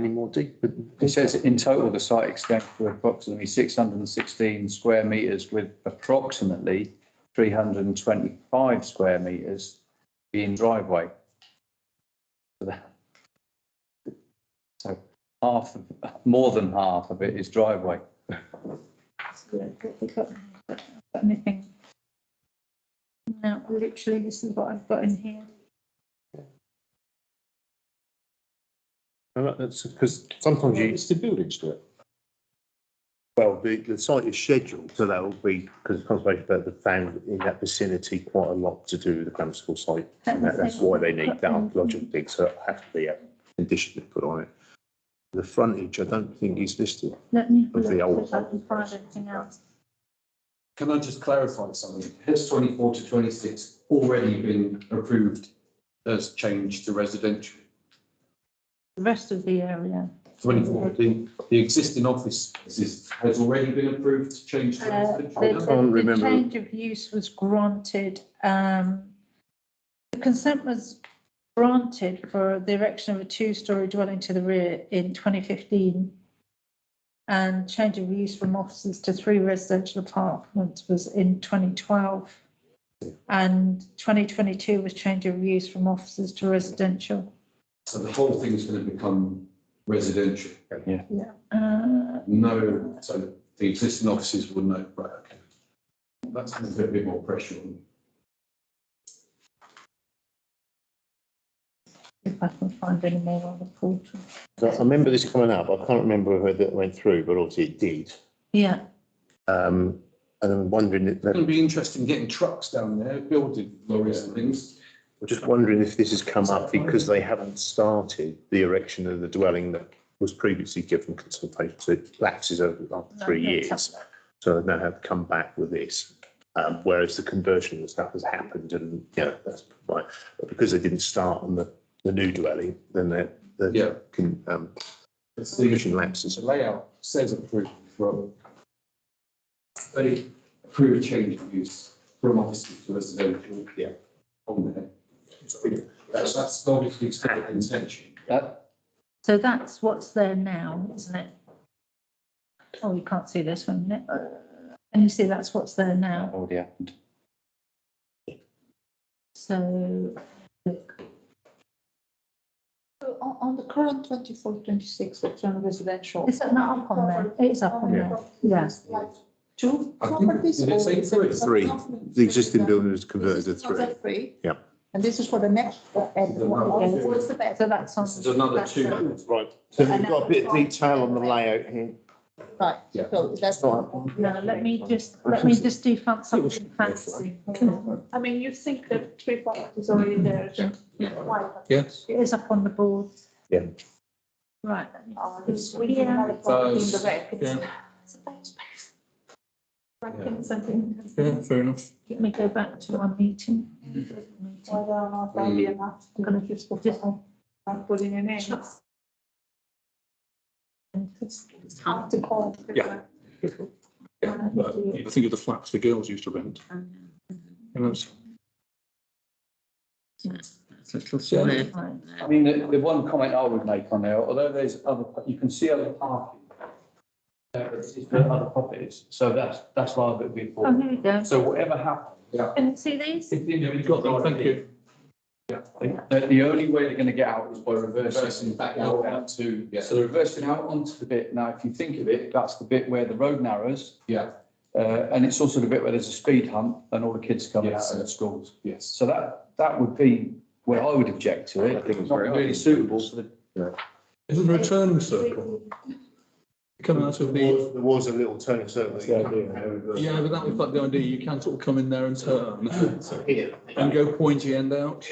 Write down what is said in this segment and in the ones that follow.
any more deep. But It says in total, the site extends to approximately six hundred and sixteen square metres with approximately three hundred and twenty-five square metres being driveway. So that- So half, of- more than half of it is driveway. We got got anything? No, literally, this is what I've got in here. and that- that's because sometimes you. It's the buildings to it. Well, the, the site is scheduled, So that will be, because Conservation Bird have found in that vicinity quite a lot to do with the Clamsville site. And that, that's why they need that archaeological dig, so it'll have to be a condition to put on it. The frontage, I don't think is listed. Let me. Of the look, old- if I can find anything else. Can I just clarify something? Has twenty-four to twenty-six already been approved as change to residential? The rest of the area. Twenty-four, the, the existing office is- has already been approved to change to Uh, residential? the- now? can't the- remember. The change of use was granted, um, the consent was granted for the erection of a two-story dwelling to the rear in twenty fifteen. And change of use from offices to three residential apartments was in twenty twelve. And twenty twenty-two was change of use from offices to residential. So the whole thing's going to become residential? Uh, No, so the existing offices will know, right, okay. That's going to put a bit more pressure on. if I can find any more on the portal. So I remember this coming up, I can't remember whether it went through, but obviously it did. Yeah, Um, and I'm wondering, if It's going that- to be interesting getting trucks down there, building lorries and things. I'm just wondering if this has come up because they haven't started the erection of the dwelling that was previously given consultation, so it lapses over after three No, that's years. So they now have to come back with this, um, whereas the conversion and stuff has happened and, you know, that's right. But because they didn't start on the, the new dwelling, then they're, Yeah. the, can, um, It's the- permission lapses. The layout says approved from. They approved change of use from offices to residential. Yeah. On there. That's, that's obviously it's got an intention. That, So that's what's there now, isn't it? Oh, you can't see this one, isn't it? And you see that's what's there that now, already happened. so. look. So On, on the current twenty-four, twenty-six, that's on residential. Is that not up on there? It is up on there, yes. Like Two I think- properties? did it or say is it three? Three. apartment? The existing building was This converted is to three. another Three. Yeah. And this is for the next, uh, and The what- number two. what's the best? So that's on. This is another that's on- two. Right. So we've got a bit of detail on the layout here. Right, Yeah. so that's. Right. No, let me just, let me just do fan- something fancy. I mean, you think that three properties already there, so why? Yes. It is up on the board. Yeah. Right, let me- Uh, this- we need another property in the back. It's- It's a bad space. Right, Yeah. and something. fair enough. let me go back to our meeting. Whether or not that'll be enough, Mm. I'm gonna just put it on, I'm putting in it. It's it's hard to call. Yeah. But I think of the flats the girls used to rent. And that's Right. I mean, the, the one comment I would make on there, although there's other, you can see other parking. There is there are other properties, so that's, that's why I've been Oh, for. here we go. So whatever happens, Can you see these? if you've got them, thank you. The, the only way they're gonna get out is by reversing Reversing back out onto, yeah, So they're reversing out onto the bit, now if you think of it, that's the bit where the road narrows, yeah, uh, and it's also the bit where there's a speed hump and all the kids come out Yes. of schools. yes. So that, that would be where I would object to it. I think it's Not very- really suitable for the Isn't there a turn circle? Come out of the, There was a little turning circle. yeah, but that was like the idea, you can sort of come in there and turn Here. and go pointy end out.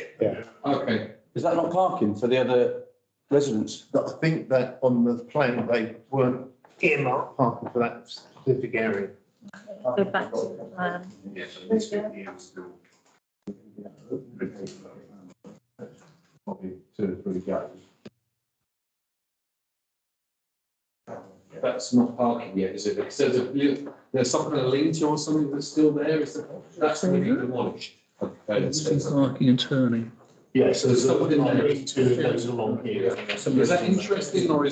Okay, Is that not parking for the other residents? But I think that on the plan, they weren't earmarked parking for that specific area. Go back to um, the plan. probably two or three goes. That's not parking yet, is it? So there's, a- there's something, a lean-to or something that's still there, is that, that's going to be demolished. Okay, It's so- just parking and turning. Yes, there's a- along Is that interesting or is